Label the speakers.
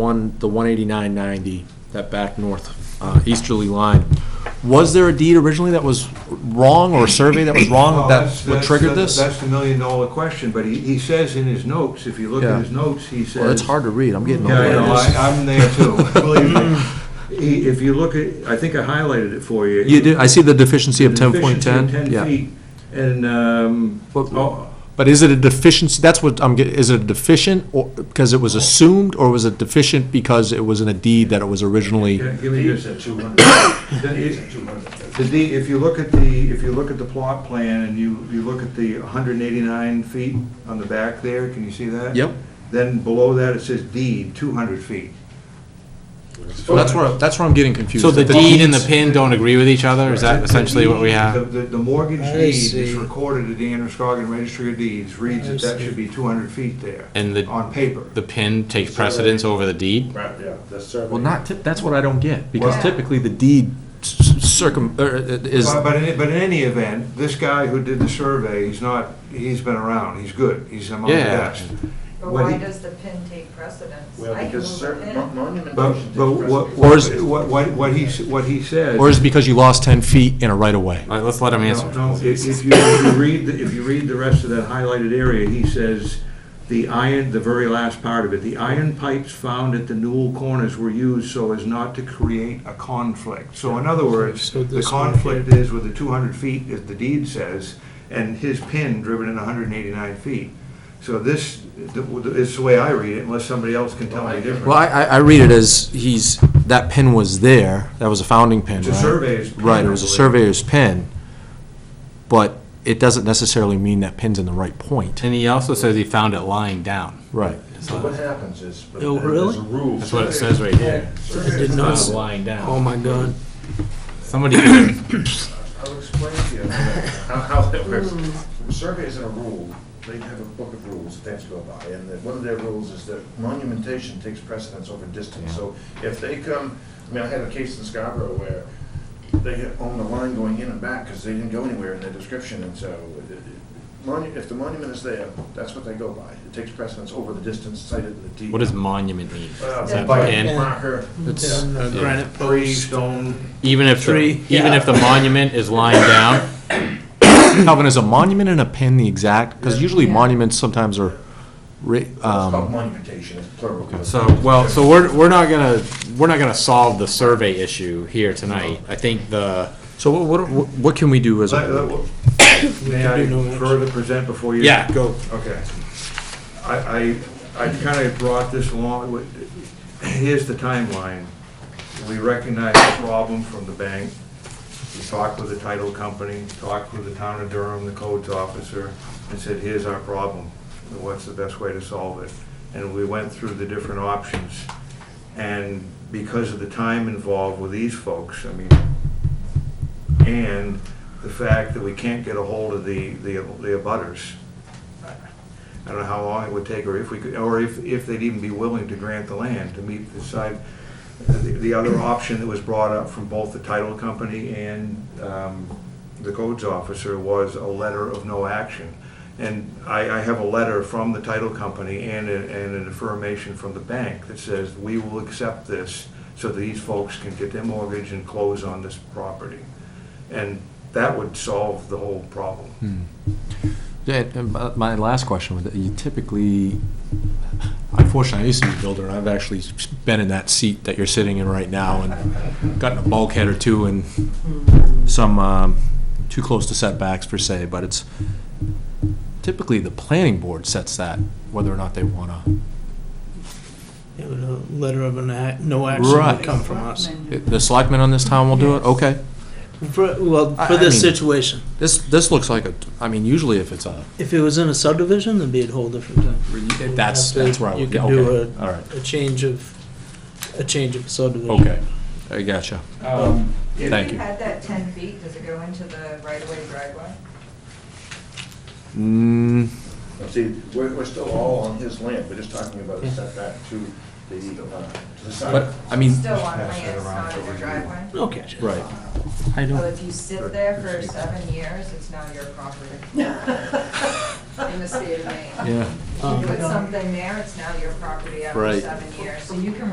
Speaker 1: one, the 18990, that back north uh, easterly line, was there a deed originally that was wrong or a survey that was
Speaker 2: Well,
Speaker 1: wrong?
Speaker 2: that's-
Speaker 1: That's what
Speaker 2: that's-
Speaker 1: triggered this?
Speaker 2: that's- That's the million-dollar question, but he, he says in his notes, if you look
Speaker 1: Yeah.
Speaker 2: at his notes, he says...
Speaker 1: Well, that's hard to read, I'm getting
Speaker 2: Yeah, I know,
Speaker 1: old.
Speaker 2: I- I'm there too, believe me. He- If you look at, I think I highlighted it for you.
Speaker 1: You do, I see the deficiency of
Speaker 2: The deficiency of
Speaker 1: 10.10, yeah.
Speaker 2: feet, And, um,
Speaker 1: But-
Speaker 2: oh,
Speaker 1: But is it a deficiency, that's what I'm getting, is it a deficient or, because it was assumed, or was it deficient because it was in a deed that it was originally?
Speaker 2: yeah, give me
Speaker 3: Deeds
Speaker 2: this.
Speaker 3: at 200.
Speaker 2: Then
Speaker 3: Deeds
Speaker 2: it-
Speaker 3: at 200.
Speaker 2: The D, if you look at the, if you look at the plot plan and you, you look at the 189 feet on the back there, can you see that?
Speaker 1: Yep.
Speaker 2: Then below that, it says deed, 200 feet.
Speaker 1: So that's where, that's where I'm getting confused.
Speaker 4: So the
Speaker 1: That
Speaker 4: deed and the
Speaker 1: deeds-
Speaker 4: pin don't agree with each other? Is that
Speaker 2: The- the
Speaker 4: essentially what we
Speaker 2: deed-
Speaker 4: have?
Speaker 2: The, the- the mortgage
Speaker 5: I
Speaker 2: deed is
Speaker 5: see.
Speaker 2: recorded at the Androscoggin Registry of Deeds, reads that that should be 200 feet there,
Speaker 4: And the,
Speaker 2: on paper.
Speaker 4: the pin takes precedence over the deed?
Speaker 3: Right, yeah, the survey.
Speaker 1: Well, not, typ- that's what I don't get, because
Speaker 2: Well-
Speaker 1: typically the deed s- s- circum, er, it is,
Speaker 2: But but in, but in any event, this guy who did the survey, he's not, he's been around, he's good, he's among the
Speaker 4: Yeah.
Speaker 2: best.
Speaker 6: But
Speaker 2: What
Speaker 6: why
Speaker 2: he-
Speaker 6: does the pin take precedence?
Speaker 3: Well,
Speaker 6: I can
Speaker 3: because
Speaker 6: move a
Speaker 3: certain
Speaker 6: pin.
Speaker 2: But,
Speaker 3: monumentation.
Speaker 2: but what,
Speaker 1: Or is-
Speaker 2: what, what- what he, s- what he says.
Speaker 1: or is it because you lost 10 feet in a right-of-way?
Speaker 4: All right, let's let him answer.
Speaker 2: No, no, if, if you, if you read, the- if you read the rest of that highlighted area, he says, the iron, the very last part of it, the iron pipes found at the newel corners were used so as not to create a conflict. So in other words,
Speaker 5: So
Speaker 2: the
Speaker 5: this one here.
Speaker 2: conflict is with the two hundred feet, as the deed says, and his pin driven in hundred and eighty-nine feet. So this, th- is the way I read it, unless somebody else can tell me different.
Speaker 1: Well, I, I I read it as he's, that pin was there, that was a founding pin,
Speaker 2: It's a
Speaker 1: right?
Speaker 2: surveyor's pin,
Speaker 1: Right, it
Speaker 2: I
Speaker 1: was a
Speaker 2: believe.
Speaker 1: surveyor's pin, but it doesn't necessarily mean that pin's in the right point.
Speaker 4: And he also says he found it lying down.
Speaker 1: Right.
Speaker 3: So what happens is.
Speaker 5: Oh, really?
Speaker 3: There's a rule.
Speaker 4: That's what it says right here.
Speaker 5: I did not,
Speaker 4: Found
Speaker 5: s-
Speaker 4: lying
Speaker 5: oh
Speaker 4: down.
Speaker 5: my God.
Speaker 4: Somebody, could-
Speaker 3: I'll explain to you how, how that works.
Speaker 5: Hmm.
Speaker 3: Surveys are a rule, they have a book of rules that they have to go by, and that one of their rules is that monumentation takes precedence over distance. So if they come, I mean, I had a case in Scarborough where they had owned a line going in and back because they didn't go anywhere in their description, and so it- it- monu- if the monument is there, that's what they go by. It takes precedence over the distance cited in the deed.
Speaker 4: what does monument mean?
Speaker 3: Uh,
Speaker 4: Is that
Speaker 3: by
Speaker 4: pin?
Speaker 3: Marker.
Speaker 5: It's a granite
Speaker 2: Tree,
Speaker 5: post.
Speaker 2: stone,
Speaker 4: Even if, the-
Speaker 5: Tree,
Speaker 4: even if the monument is lying down,
Speaker 1: Calvin, is a monument and a pin the exact, because usually
Speaker 6: Yeah.
Speaker 1: monuments sometimes are, ri-
Speaker 3: It's
Speaker 1: um,
Speaker 3: called monumentation, it's plural.
Speaker 4: So, well, so we're, we're not gonna, we're not gonna solve the survey issue here tonight. I think the,
Speaker 1: so what, what, what can we do as a?
Speaker 2: Let- let- uh, May I further present before you?
Speaker 4: yeah, go.
Speaker 2: Okay. I, I, I kind of brought this along, with- here's the timeline. We recognized the problem from the bank. We talked with the title company, talked with the town of Durham, the codes officer, and said, here's our problem. What's the best way to solve it? And we went through the different options. And because of the time involved with these folks, I mean, and the fact that we can't get a hold of the, the the abutters. I don't know how long it would take, or if we could, or if, if they'd even be willing to grant the land to meet the side. The the other option that was brought up from both the title company and um, the codes officer was a letter of no action. And I, I have a letter from the title company and, a- and an affirmation from the bank that says, we will accept this so that these folks can get their mortgage and close on this property. And that would solve the whole problem.
Speaker 1: Yeah, and my- my last question, was that you typically, unfortunately, I used to be a builder, and I've actually been in that seat that you're sitting in right now, and gotten a bulkhead or two and some, um, too close to setbacks per se, but it's, typically, the planning board sets that, whether or not they want to.
Speaker 5: You know, a Letter of an act, no action
Speaker 1: Right.
Speaker 5: would come from us.
Speaker 1: The selectmen on this town will do it? Okay.
Speaker 5: For, well,
Speaker 1: I-
Speaker 5: for
Speaker 1: I
Speaker 5: this
Speaker 1: mean-
Speaker 5: situation,
Speaker 1: This, this looks like a, I mean, usually if it's a,
Speaker 5: if it was in a subdivision, then be a whole different thing.
Speaker 1: if that's, that's where I
Speaker 5: You
Speaker 1: would,
Speaker 5: could
Speaker 1: yeah,
Speaker 5: do
Speaker 1: okay, all right,
Speaker 5: A change of, a change of subdivision.
Speaker 1: okay, I gotcha. Thank
Speaker 5: Um,
Speaker 6: If you
Speaker 1: you.
Speaker 6: had that 10 feet, does it go into the right-of-way driveway?
Speaker 1: Mm,
Speaker 3: See, we're, we're still all on his land, we're just talking about a setback to the, uh, to the side.
Speaker 1: but, I mean,
Speaker 6: Still on
Speaker 2: pass that
Speaker 6: land, it's
Speaker 2: around
Speaker 6: not in
Speaker 2: over
Speaker 6: the
Speaker 2: here.
Speaker 6: driveway?
Speaker 5: Okay.
Speaker 1: right.
Speaker 5: I
Speaker 6: Well,
Speaker 5: don't,
Speaker 6: if you sit there for seven years, it's now your property. In the state of Maine.
Speaker 1: Yeah.
Speaker 5: Um,
Speaker 6: You put something there, it's now your property
Speaker 1: Right.
Speaker 6: after seven years, so you can